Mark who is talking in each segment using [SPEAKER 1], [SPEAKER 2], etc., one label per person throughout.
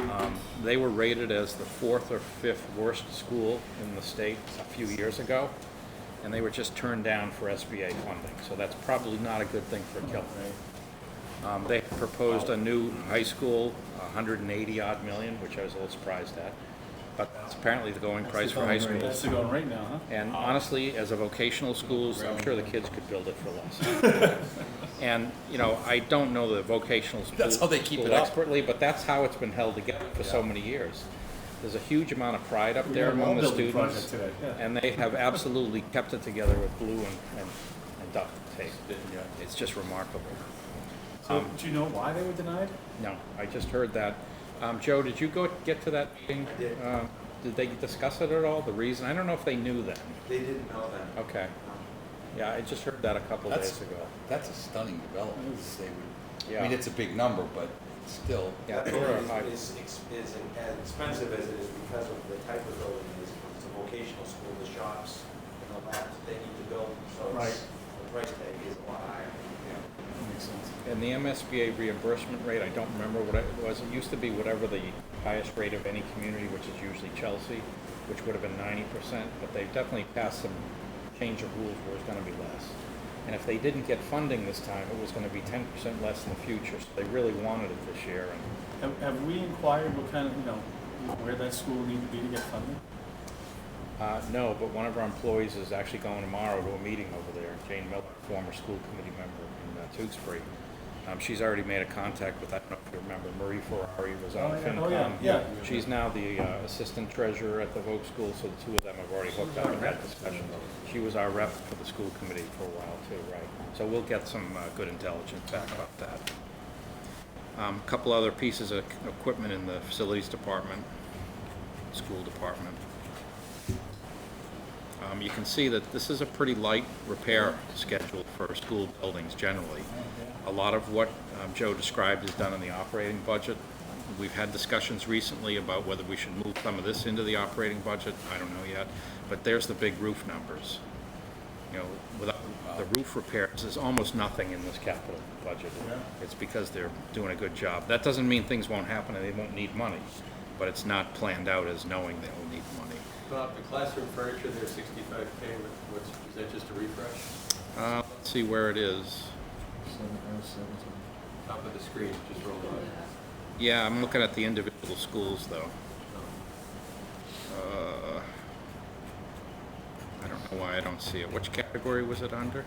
[SPEAKER 1] Um, They were rated as the fourth or fifth worst school in the state a few years ago, and they were just turned down for SBA funding, so that's probably not a good thing for Kilton. Um, They proposed a new high school, 180-odd million, which I was a little surprised at, but that's apparently the going price for high schools.
[SPEAKER 2] That's the going right now, huh?
[SPEAKER 3] Oh.
[SPEAKER 1] And honestly, as a vocational school, I'm sure the kids could build it for less. And, you know, I don't know the vocational school.
[SPEAKER 3] That's how they keep
[SPEAKER 1] school
[SPEAKER 3] it up.
[SPEAKER 1] Expertly, but that's how it's been held together for so many years. There's a huge amount of pride up there
[SPEAKER 2] had a
[SPEAKER 1] among the
[SPEAKER 2] wall-building project
[SPEAKER 1] students.
[SPEAKER 2] today, yeah.
[SPEAKER 1] And they have absolutely kept it together with glue and, and and duct tape. It's just remarkable. Um,
[SPEAKER 2] So, do you know why they were denied?
[SPEAKER 1] No, I just heard that. Um, Joe, did you go, get to that meeting? Uh, Did they discuss it at all, the reason? I don't know if they knew then.
[SPEAKER 4] They didn't know that.
[SPEAKER 1] Okay. Yeah, I just heard that a couple
[SPEAKER 3] That's-
[SPEAKER 1] days ago.
[SPEAKER 3] That's a stunning development. to say we- I mean,
[SPEAKER 1] Yeah.
[SPEAKER 3] it's a big number, but still.
[SPEAKER 1] Yeah,
[SPEAKER 4] That
[SPEAKER 1] they were
[SPEAKER 4] building
[SPEAKER 1] high-
[SPEAKER 4] is, is, ex- is in- as expensive as it is because of the type of building it is. It's a vocational school, the shops and the labs that they need to build, so it's, the price tag is a lot higher.
[SPEAKER 2] That makes sense.
[SPEAKER 1] And the MSBA reimbursement rate, I don't remember what it was. It used to be whatever the highest rate of any community, which is usually Chelsea, which would have been ninety percent, but they definitely passed some change of rules where it's gonna be less. And if they didn't get funding this time, it was gonna be ten percent less in the future, so they really wanted it this year. And
[SPEAKER 2] Have, have we inquired what kind of, you know, where that school would need to be to get funding?
[SPEAKER 1] Uh, no, but one of our employees is actually going tomorrow to a meeting over there, Jane Miller, former school committee member in uh, Tewksbury. Um, she's already made a contact with, I don't know if you remember, Marie Ferrari was on
[SPEAKER 2] Oh, yeah. Oh,
[SPEAKER 1] FinCom.
[SPEAKER 2] yeah. Yeah.
[SPEAKER 1] She's now the uh, assistant treasurer at the Vogue School, so the two of them have already hooked up and had discussions. She was our rep for the school committee for a while too, right? So we'll get some uh, good intelligence back about that. Um, couple other pieces of equipment in the facilities department, school department. Um, you can see that this is a pretty light repair schedule for school buildings generally. A lot of what um, Joe described is done in the operating budget. We've had discussions recently about whether we should move some of this into the operating budget, I don't know yet, but there's the big roof numbers. You know, without the roof repairs, there's almost nothing in this capital budget.
[SPEAKER 2] Yeah.
[SPEAKER 1] It's because they're doing a good job. That doesn't mean things won't happen and they won't need money, but it's not planned out as knowing they'll need money.
[SPEAKER 5] Bob, the classroom furniture there, sixty-five K, what's, is that just a refresh?
[SPEAKER 1] Uh, let's see where it is.
[SPEAKER 5] Top of the screen, just rolled on.
[SPEAKER 1] Yeah, I'm looking at the individual schools though. Uh, I don't know why I don't see it. Which category was it under?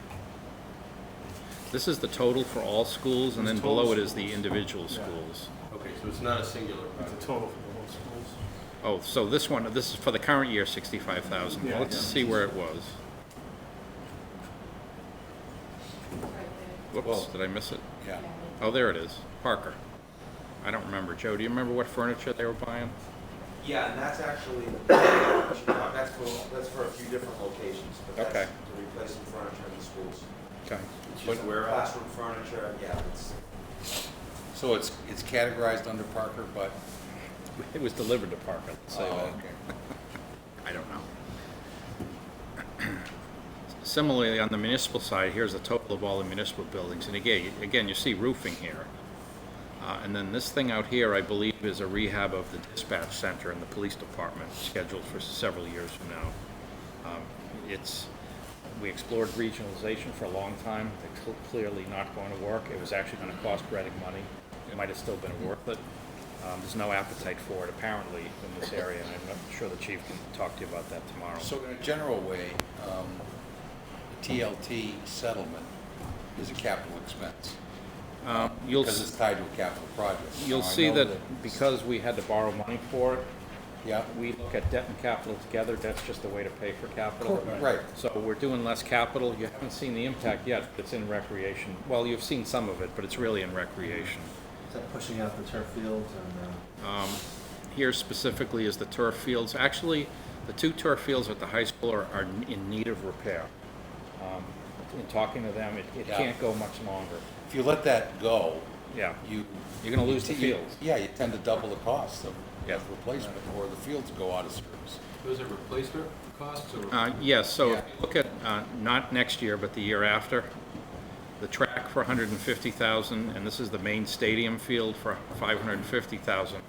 [SPEAKER 1] This is the total for all schools and then
[SPEAKER 2] It's total
[SPEAKER 1] below it is the
[SPEAKER 2] schools.
[SPEAKER 1] individual
[SPEAKER 2] Yeah.
[SPEAKER 1] schools.
[SPEAKER 5] Okay, so it's not a singular
[SPEAKER 2] It's a
[SPEAKER 5] project.
[SPEAKER 2] total for the whole schools.
[SPEAKER 1] Oh, so this one, this is for the current year, sixty-five thousand.
[SPEAKER 2] Yeah,
[SPEAKER 1] Let's
[SPEAKER 2] yeah.
[SPEAKER 1] see where it was. Whoops,
[SPEAKER 3] Whoa.
[SPEAKER 1] did I miss it?
[SPEAKER 3] Yeah.
[SPEAKER 1] Oh, there it is. Parker. I don't remember. Joe, do you remember what furniture they were buying?
[SPEAKER 4] Yeah, and that's actually, that's for, that's for a few different locations, but
[SPEAKER 1] Okay.
[SPEAKER 4] that's to replace some furniture in the schools.
[SPEAKER 1] Okay.
[SPEAKER 5] It's
[SPEAKER 3] But
[SPEAKER 5] just warehouse.
[SPEAKER 4] Classroom furniture, yeah, it's,
[SPEAKER 3] So it's, it's categorized under Parker, but.
[SPEAKER 1] It was delivered to Parker, let's say
[SPEAKER 3] Oh,
[SPEAKER 1] that.
[SPEAKER 3] okay.
[SPEAKER 1] I don't know. Similarly, on the municipal side, here's the total of all the municipal buildings, and again, again, you see roofing here. Uh, and then this thing out here, I believe, is a rehab of the dispatch center and the police department, scheduled for several years from now. Um, It's, we explored regionalization for a long time, it's cl- clearly not going to work, it was actually gonna cost Reading money, it might have still been worth it. Um, there's no appetite for it apparently in this area, and I'm not sure the chief can talk to you about that tomorrow.
[SPEAKER 3] So in a general way, um, TLT settlement is a capital expense
[SPEAKER 1] Um, You'll,
[SPEAKER 3] because
[SPEAKER 1] s-
[SPEAKER 3] it's tied to a capital project.
[SPEAKER 1] you'll
[SPEAKER 3] Now, I
[SPEAKER 1] see
[SPEAKER 3] know
[SPEAKER 1] that because we had to borrow money for it,
[SPEAKER 3] Yeah,
[SPEAKER 1] we look at debt and capital together, that's just the way to pay for capital.
[SPEAKER 3] Cor- right.
[SPEAKER 1] So we're doing less capital, you haven't seen the impact yet, it's in recreation. Well, you've seen some of it, but it's really in recreation.
[SPEAKER 6] Is that pushing out the turf fields and, uh,
[SPEAKER 1] Um, Here specifically is the turf fields. Actually, the two turf fields at the high school are, are in need of repair. Um, In talking to them, it, it
[SPEAKER 3] Yeah.
[SPEAKER 1] can't go much longer.
[SPEAKER 3] if you let that go,
[SPEAKER 1] Yeah,
[SPEAKER 3] you.
[SPEAKER 1] You're gonna lose the
[SPEAKER 3] you-
[SPEAKER 1] fields.
[SPEAKER 3] Yeah, you tend to double the cost of
[SPEAKER 1] Yeah.
[SPEAKER 3] of replacement or the fields go out of service.
[SPEAKER 5] Those are replacement costs or?
[SPEAKER 1] Uh, Yes, so if
[SPEAKER 3] Yeah.
[SPEAKER 1] you look at, uh, not next year, but the year after, the track for 150,000, and this is the main stadium field for 550,000.